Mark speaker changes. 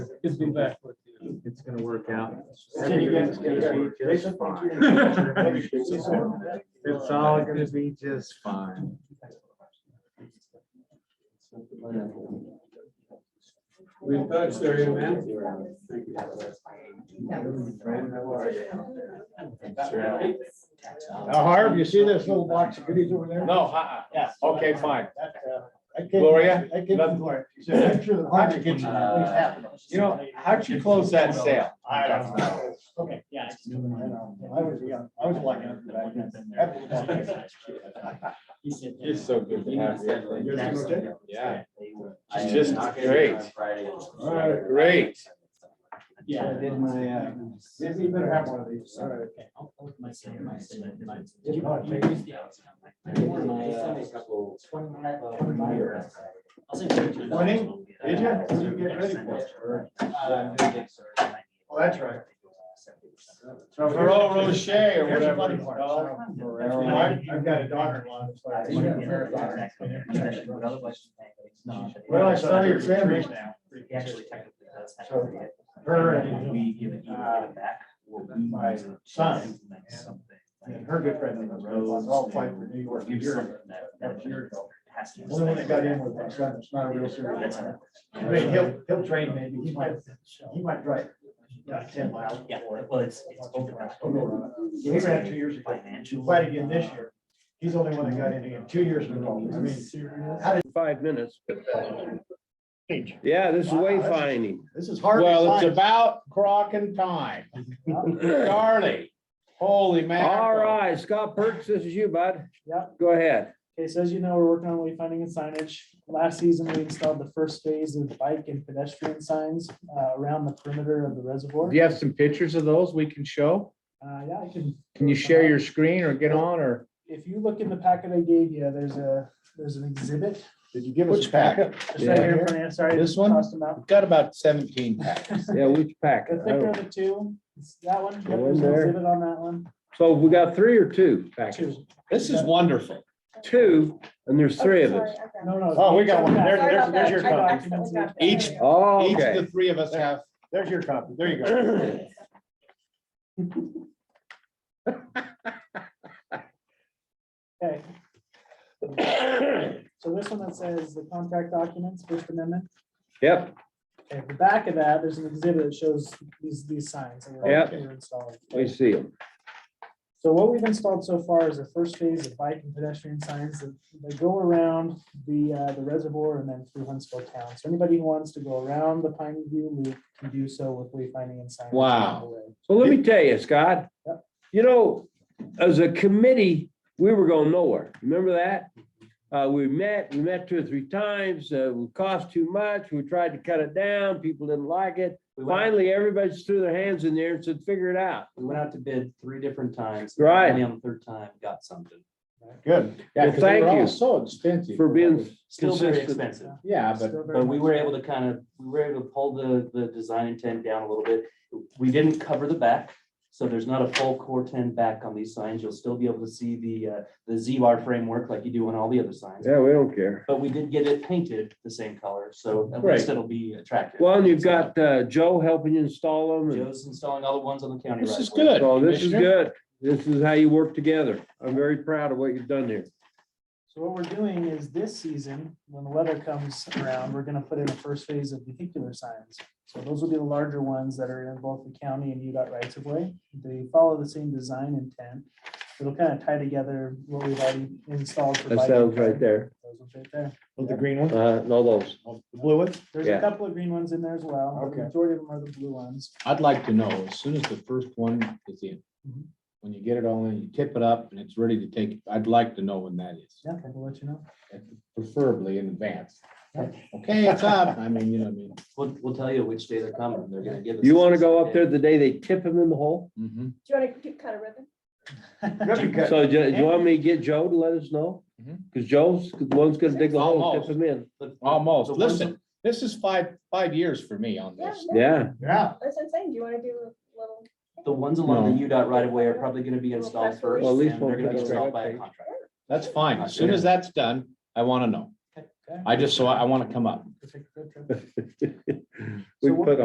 Speaker 1: Good to be back with you.
Speaker 2: It's gonna work out.
Speaker 3: See you guys.
Speaker 2: Everything's gonna be just fine. It's all gonna be just fine.
Speaker 1: We touched there, you man.
Speaker 3: Now, Harv, you see this little box of goodies over there?
Speaker 4: No, uh-uh,
Speaker 3: Yes.
Speaker 4: okay, fine.
Speaker 3: That, uh, I gave-
Speaker 4: Gloria?
Speaker 3: I gave them Gloria. She said, "Make sure that Harvey gets at least half of those."
Speaker 4: You know, how'd you close that sale?
Speaker 3: I don't know. Okay, yeah. I know. I was young, I was lucky enough to back then.
Speaker 4: It's so good to have you. Yeah.
Speaker 5: It's just great.
Speaker 4: Great.
Speaker 3: Yeah, I did my, uh, Dizzy, you better have one of these. All right. Morning. Did you? What Did you get ready for it? Or- Well, that's right.
Speaker 4: Ferrero Rocher or
Speaker 3: Here's your
Speaker 4: whatever.
Speaker 3: money
Speaker 4: it's
Speaker 3: part.
Speaker 4: called.
Speaker 3: So, I've I've got a daughter-in-law. that's like- Well, I saw your family now. Her and my son and her good friend in the road, all fight for New York. Only when they got in with my son, it's not a real serious. matter. I mean, he'll, he'll train maybe, he might, he might drive, you know, ten miles.
Speaker 5: Yeah, well, it's, it's over.
Speaker 3: He'll go around. He ran two years ago,
Speaker 5: Financial.
Speaker 3: fight again this year. He's the only one that got in again, two years in a row. I mean, how did,
Speaker 6: five minutes. Yeah, this is wayfinding.
Speaker 3: this is hard.
Speaker 4: Well, it's
Speaker 3: science.
Speaker 4: about crock and time. Charlie, holy man.
Speaker 6: All right, Scott Perks, this is you, bud.
Speaker 7: Yep.
Speaker 6: Go ahead.
Speaker 7: Okay, so as you know, we're working on wayfinding and signage. Last season, we installed the first phase of bike and pedestrian signs uh, around the perimeter of the reservoir.
Speaker 4: Do you have some pictures of those we can show?
Speaker 7: Uh, Yeah, I can.
Speaker 4: Can you share your screen or get on or?
Speaker 7: If you look in the packet I gave you, there's a, there's an exhibit.
Speaker 3: Did you give us?
Speaker 4: Which packet?
Speaker 7: It's right here in front of you. Sorry. I
Speaker 4: This one?
Speaker 7: tossed them out.
Speaker 4: Got about seventeen packets.
Speaker 6: Yeah, which pack?
Speaker 7: The thicker of the two, it's that one. Yep,
Speaker 6: Go in
Speaker 7: There's an
Speaker 6: there.
Speaker 7: exhibit on that one.
Speaker 6: So we got three or two packets?
Speaker 7: Two.
Speaker 4: This is wonderful.
Speaker 6: Two, and there's three of us.
Speaker 7: No, no.
Speaker 3: Oh, we got one. There-
Speaker 8: Sorry
Speaker 3: there's,
Speaker 8: about
Speaker 3: there's
Speaker 8: that.
Speaker 3: your
Speaker 8: I
Speaker 3: copy.
Speaker 8: accidentally got that.
Speaker 4: Each-
Speaker 8: There we go.
Speaker 6: Oh,
Speaker 4: Each of the
Speaker 6: okay.
Speaker 4: three of us have
Speaker 3: There's your copy. There you go.
Speaker 7: Okay. So this one that says the contract documents, First Amendment.
Speaker 6: Yep,
Speaker 7: Okay, the back of that, there's an exhibit that shows these, these signs. that were-
Speaker 6: Yep.
Speaker 7: that were installed.
Speaker 6: we see them.
Speaker 7: So what we've installed so far is the first phase of bike and pedestrian signs that they go around the, uh, the reservoir and then through Huntsville town. So anybody who wants to go around the Pine View Loop can do so with wayfinding and signage.
Speaker 4: Wow.
Speaker 7: along the way.
Speaker 6: So let me tell you, Scott,
Speaker 7: Yep.
Speaker 6: you know, as a committee, we were going nowhere. Remember that? Uh, we met, we met two or three times, uh, it cost too much. We tried to cut it down. People didn't like it.
Speaker 5: We went, out-
Speaker 6: Finally, everybody just threw their hands in the air and said, figure it out.
Speaker 5: we went out to bid three different times.
Speaker 6: Right.
Speaker 5: Only on the third time, got something.
Speaker 4: Good. Yeah,
Speaker 6: Well,
Speaker 4: 'cause they
Speaker 6: thank
Speaker 4: were all
Speaker 6: you
Speaker 4: So expensive.
Speaker 6: for being
Speaker 5: Still very
Speaker 6: consistent.
Speaker 5: expensive.
Speaker 4: Yeah, but
Speaker 7: Still very
Speaker 5: But we
Speaker 7: much
Speaker 5: were
Speaker 7: so.
Speaker 5: able to kind of, we were able to pull the, the design intent down a little bit. We didn't cover the back, so there's not a full core ten back on these signs. You'll still be able to see the, uh, the Z bar framework like you do on all the other signs.
Speaker 6: Yeah, we don't care.
Speaker 5: But we did get it painted the same color, so at
Speaker 4: Right.
Speaker 5: least it'll be attractive.
Speaker 6: Well, and you've got uh, Joe helping you install them. and-
Speaker 5: Joe's installing all the ones on the county.
Speaker 4: This
Speaker 5: right
Speaker 4: is
Speaker 5: away.
Speaker 4: good.
Speaker 6: So this is
Speaker 4: Commissioner.
Speaker 6: good. This is how you work together. I'm very proud of what you've done here.
Speaker 7: So what we're doing is this season, when the weather comes around, we're gonna put in the first phase of vehicular signs. So those will be the larger ones that are in both the county and UDOT rights of way. They follow the same design intent. It'll kind of tie together what we've already installed. for
Speaker 6: That
Speaker 7: bike and
Speaker 6: sounds right
Speaker 7: car.
Speaker 6: there.
Speaker 7: Those ones right there.
Speaker 3: With the green one,
Speaker 6: Uh, no, those.
Speaker 3: the blue one?
Speaker 7: There's
Speaker 6: Yeah.
Speaker 7: a couple of green ones in there as well. but
Speaker 3: Okay.
Speaker 7: The Majority of them are the blue ones.
Speaker 4: I'd like to know, as soon as the first one is in, when you get it all in, you tip it up and it's ready to take, I'd like to know when that is,
Speaker 7: Yeah, I'll let you know.
Speaker 4: preferably in advance. Okay, it's up. I mean, you know what I mean?
Speaker 5: We'll, we'll tell you which day they're coming. They're gonna give us.
Speaker 6: You
Speaker 5: a
Speaker 6: want to go up there
Speaker 5: specific
Speaker 6: the day they tip him in the hole?
Speaker 4: Mhm.
Speaker 8: Do you want to cut a ribbon?
Speaker 3: Ribbon cut.
Speaker 6: So do do you want me to get Joe to let us know?
Speaker 4: Mhm.
Speaker 6: Because Joe's, the one's gonna dig the hole and
Speaker 4: Almost.
Speaker 6: tip him in.
Speaker 5: day. But-
Speaker 4: Almost.
Speaker 5: so one's-
Speaker 4: Listen, this is five, five years for me on
Speaker 8: Yeah,
Speaker 4: this.
Speaker 8: no,
Speaker 6: Yeah,
Speaker 3: Yeah.
Speaker 8: that's what I'm saying. Do you want to do a little?
Speaker 5: The ones along the UDOT right away are probably gonna be installed first.
Speaker 6: Well, at least
Speaker 5: and They're
Speaker 6: we'll
Speaker 5: gonna be
Speaker 6: get it
Speaker 5: installed by
Speaker 6: right.
Speaker 5: a contractor.
Speaker 4: That's fine. As soon as that's done, I want to know.
Speaker 7: Okay.
Speaker 4: I just, so I want to come up.
Speaker 7: Perfect. Good trip.
Speaker 6: we
Speaker 7: So what-
Speaker 6: put